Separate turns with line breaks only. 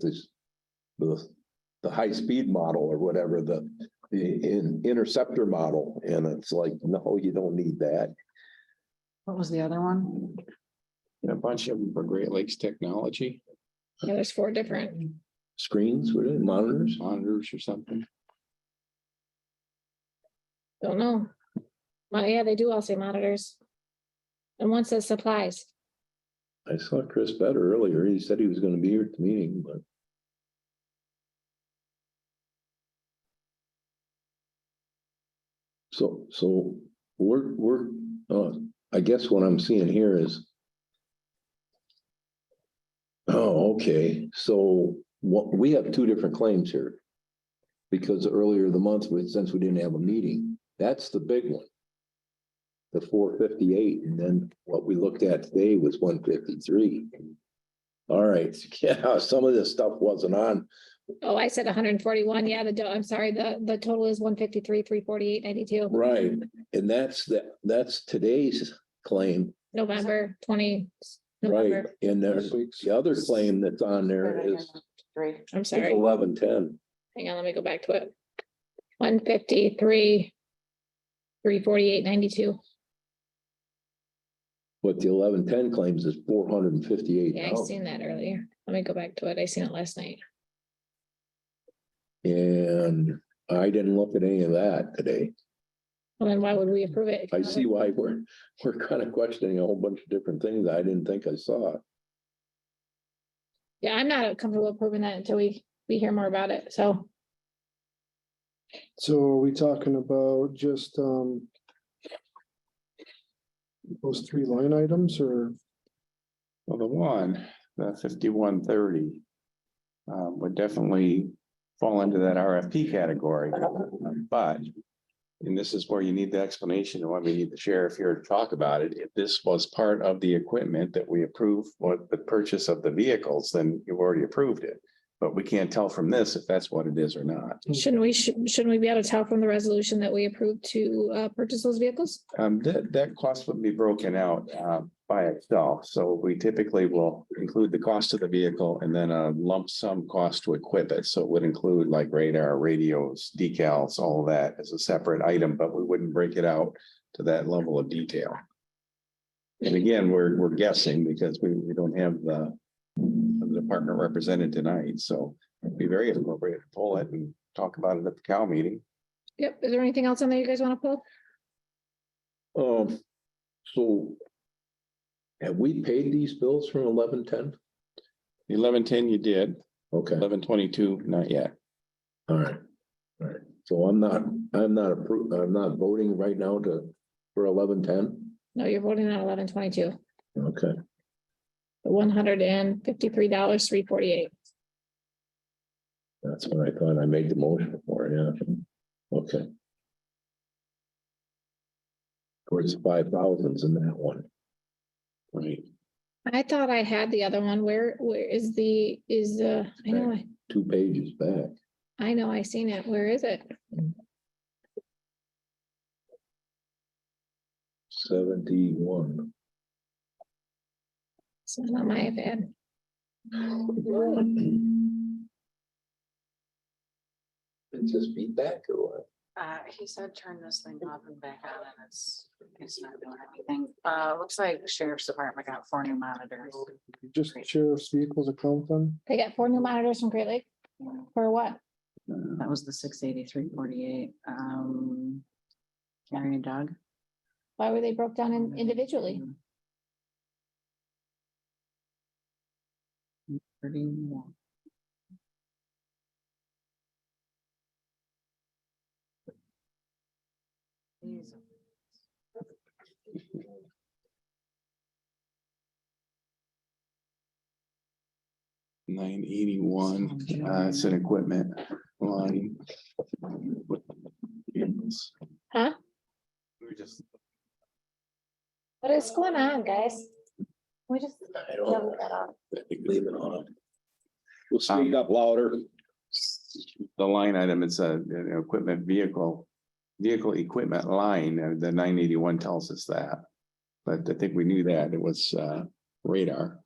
this, the, the high-speed model or whatever, the, the in- interceptor model, and it's like, no, you don't need that.
What was the other one?
And a bunch of them for Great Lakes Technology
Yeah, there's four different.
Screens, what are they, monitors?
monitors or something.
Don't know. Well, yeah, they do all say monitors. And one says supplies.
I saw Chris Better earlier. He said he was gonna be here at the meeting, but so, so we're, we're, uh, I guess what I'm seeing here is oh, okay, so what, we have two different claims here. Because earlier the month, we- since we didn't have a meeting, that's the big one the four fifty-eight, and then what we looked at today was one fifty-three. All right, yeah, some of this stuff wasn't on,
Oh, I said hundred and forty-one. Yeah, the, do- I'm sorry, the, the total is one fifty-three, three forty-eight, ninety-two,
right, and that's the, that's today's claim,
November twenty.
right?
November,
And there's,
This week's.
the other claim that's on there is
Three.
I'm sorry.
eleven ten,
Hang on, let me go back to it. One fifty-three, three forty-eight, ninety-two.
but the eleven ten claims is four hundred and fifty-eight
Yeah, I
thousand.
seen that earlier. Let me go back to it. I seen it last night.
And I didn't look at any of that today.
Well, then why would we approve it?
I see why we're, we're kind of questioning a whole bunch of different things I didn't think I saw.
Yeah, I'm not comfortable approving that until we, we hear more about it. So
So are we talking about just, um. Those three line items or,
Well, the one, the fifty-one thirty. Um, would definitely fall into that RFP category, but. And this is where you need the explanation and why we need the sheriff here to talk about it. If this was part of the equipment that we approved for the purchase of the vehicles, then you've already approved it. But we can't tell from this if that's what it is or not.
shouldn't we, shouldn't shouldn't we be able to tell from the resolution that we approved to uh, purchase those vehicles?
Um, that, that cost would be broken out, uh, by itself, so we typically will include the cost of the vehicle and then a lump sum cost to equip it, so it would include like radar, radios, decals, all of that as a separate item, but we wouldn't break it out to that level of detail. And again, we're, we're guessing because we, we don't have the, the department represented tonight, so it'd be very appropriate to pull it and talk about it at the cow meeting.
Yep. Is there anything else on there you guys want to pull?
Um, so. Have we paid these bills from eleven ten?
Eleven ten you did,
Okay,
eleven twenty-two, not yet.
all right. All right, so I'm not, I'm not approved, I'm not voting right now to, for eleven ten?
No, you're voting on eleven twenty-two,
Okay,
the one hundred and fifty-three dollars, three forty-eight.
that's what I thought I made the motion for, yeah, okay. Of course, five thousands in that one.
Right,
I thought I had the other one. Where, where is the, is the, I know, I-
Two pages back.
I know, I seen it. Where is it?
Seventy-one.
It's not on my iPad.
It's just feedback or what?
Uh, he said turn this thing off and back on and it's, it's not doing anything. Uh, looks like the sheriff's department got four new monitors.
just sheriff's vehicles account then?
They got four new monitors from Great Lake for what?
That was the six eighty-three forty-eight, um. Gary and Doug.
Why were they broke down in- individually?
Thirty-one.
nine eighty-one, uh, it's an equipment line.
Huh?
We're just,
What is going on, guys? We just.
I don't. I think Leave it on. Um, We'll speak up louder.
the line item, it's a, an equipment vehicle, vehicle equipment line, uh, the nine eighty-one tells us that. But I think we knew that, it was, uh, radar.